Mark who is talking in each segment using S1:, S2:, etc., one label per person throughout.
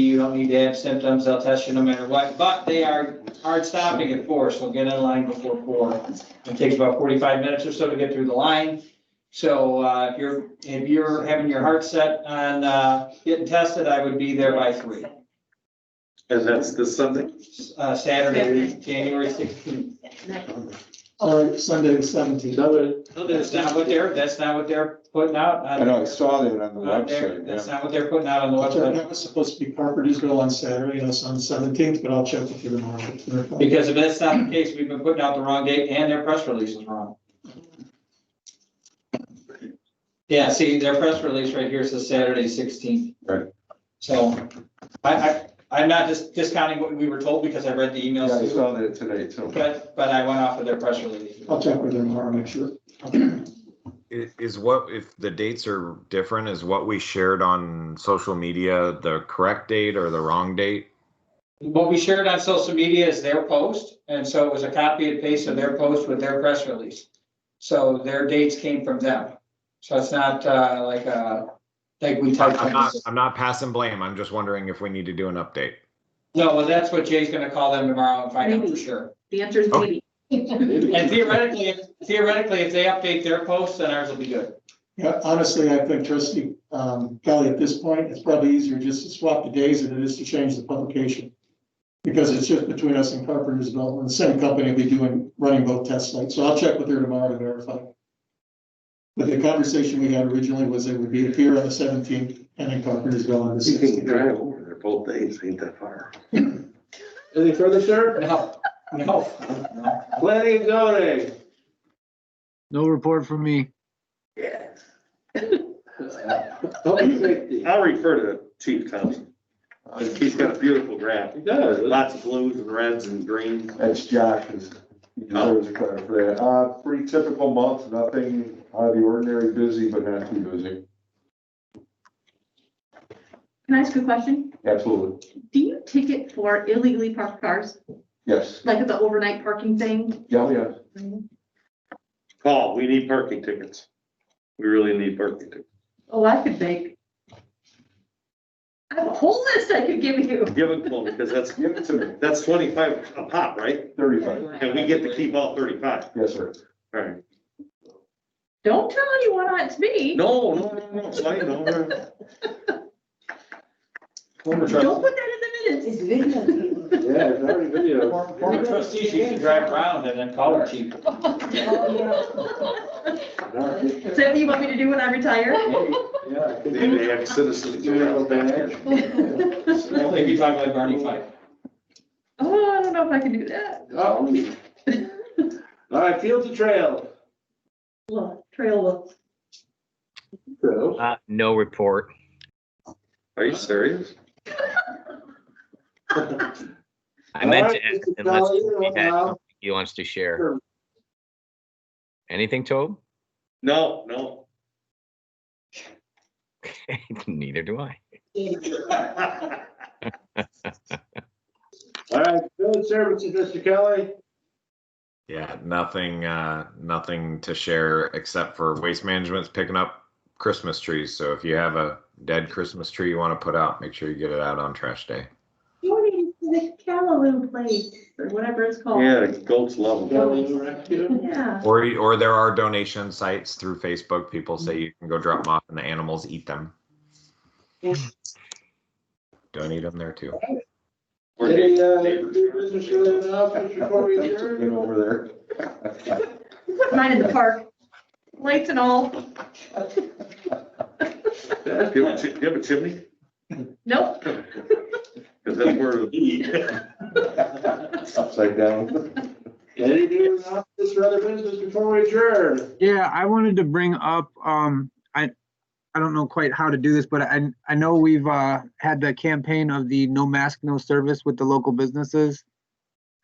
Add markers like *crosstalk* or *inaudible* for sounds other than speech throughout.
S1: You don't need to have symptoms, they'll test you no matter what, but they are hard stopping at four, so get in line before four. It takes about forty-five minutes or so to get through the line. So, uh, if you're, if you're having your heart set on, uh, getting tested, I would be there by three.
S2: And that's the Sunday.
S1: Uh, Saturday, January sixteenth.
S3: Or Sunday the seventeenth.
S2: Another,
S1: That's not what they're, that's not what they're putting out.
S4: I know, I saw that on the
S1: Not there,
S4: website,
S1: that's
S4: yeah.
S1: not what they're putting out on the website,
S3: That was supposed to be Parkersville on Saturday, that's on the seventeenth, but I'll check with you tomorrow.
S1: because if that's not the case, we've been putting out the wrong date and their press release is wrong. Yeah, see, their press release right here says Saturday sixteenth.
S4: Right.
S1: So, I, I, I'm not just discounting what we were told because I read the
S4: Yeah, I
S1: emails, too,
S4: saw that today too.
S1: but, but I went off of their press release.
S3: I'll check with you tomorrow, make sure.
S5: I- Is what, if the dates are different, is what we shared on social media the correct date or the wrong date?
S1: What we shared on social media is their post, and so it was a copy and paste of their post with their press release. So their dates came from them. So it's not uh, like, uh, like we typed.
S5: I'm not, I'm not passing blame. I'm just wondering if we need to do an update.
S1: No, well, that's what Jay's gonna call them tomorrow and find out for sure.
S6: The answer is
S5: Okay.
S6: maybe.
S1: And theoretically, theoretically, if they update their posts, then ours will be good.
S3: Yeah, honestly, I think trustee, um, Kelly, at this point, it's probably easier just to swap the days than it is to change the publication. Because it's just between us and Carpentersville, and the same company will be doing, running both test sites, so I'll check with her tomorrow to verify. But the conversation we had originally was it would be here on the seventeenth and in Carpentersville on the
S2: you can
S3: sixteenth.
S2: drive over there both days, ain't that far.
S7: Any further, sir?
S1: No, no, no.
S7: Planning and zoning.
S8: No report from me.
S2: Yes.
S7: Public safety.
S2: I'll refer to Chief Thompson. He's got a beautiful graph.
S7: It does.
S2: Lots of blues and reds and greens.
S4: That's Josh, is- he
S2: Oh.
S4: deserves a credit for that. Uh, pretty typical month, nothing out of the ordinary, busy, but not too busy.
S6: Can I ask you a question?
S4: Absolutely,
S6: Do you ticket for illegally parked cars,
S4: yes,
S6: like the overnight parking thing?
S4: yeah, yeah.
S2: Paul, we need parking tickets. We really need parking tickets.
S6: Oh, I could make. I have a whole list I could give you.
S2: Give it to them, because that's,
S4: Give it to me,
S2: that's twenty-five a pop, right?
S4: thirty-five,
S2: And we get to keep all thirty-five.
S4: yes, sir.
S2: All right.
S6: Don't tell anyone it's me.
S2: No, no, no, no, it's fine, don't worry.
S1: Former
S6: Don't
S1: trustee,
S6: put that in the minutes. *laughs*
S7: Yeah, it's already video.
S1: former trustees used to drive around and then call her chief.
S6: Is that what you want me to do when I
S2: *laughs*
S6: retire? Oh,
S7: Yeah.
S2: They they have citizens.
S1: Only if you talk like Barney Fife.
S6: Oh, I don't know if I can do that.
S7: Oh. All right, fields and trails.
S6: Look, trail look.
S7: So,
S8: Uh, no report.
S2: Are you serious?
S8: I meant to
S7: Alright,
S8: ask
S7: Mr.
S8: unless
S7: Kelly,
S8: he had
S7: allow-
S8: something he wants to share.
S7: Sure.
S8: Anything, Tobe? *laughs*
S2: No, no.
S8: Neither do I.
S7: All right, field services, Mr. Kelly.
S5: Yeah, nothing, uh, nothing to share except for Waste Management's picking up Christmas trees. So if you have a dead Christmas tree you want to put out, make sure you get it out on trash day.
S6: Morning, the Callaloo place, or whatever it's called.
S2: Yeah, the goats love them.
S7: Kelly Rescue.
S6: Yeah.
S5: Or, or there are donation sites through Facebook. People say you can go drop them off and the animals eat them. Donate them there too.
S7: Any, uh, new business related announcements before we
S4: Been
S7: adjourn?
S4: over there.
S6: Put mine in the park, lights and all.
S2: Do you have a chi- do you have a chimney?
S6: Nope.
S2: Because
S7: *laughs*
S2: that's where. *laughs*
S4: Upside down.
S7: Any new announcements or other business before we adjourn?
S9: Yeah, I wanted to bring up, um, I, I don't know quite how to do this, but I, I know we've, uh, had the campaign of the no mask, no service with the local businesses.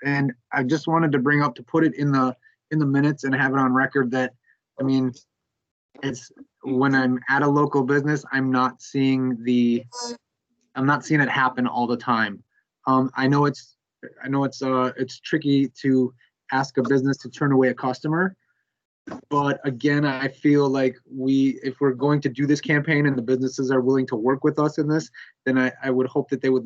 S9: And I just wanted to bring up to put it in the, in the minutes and have it on record that, I mean, it's, when I'm at a local business, I'm not seeing the, I'm not seeing it happen all the time. Um, I know it's, I know it's, uh, it's tricky to ask a business to turn away a customer. But again, I feel like we, if we're going to do this campaign and the businesses are willing to work with us in this, then I, I would hope that they would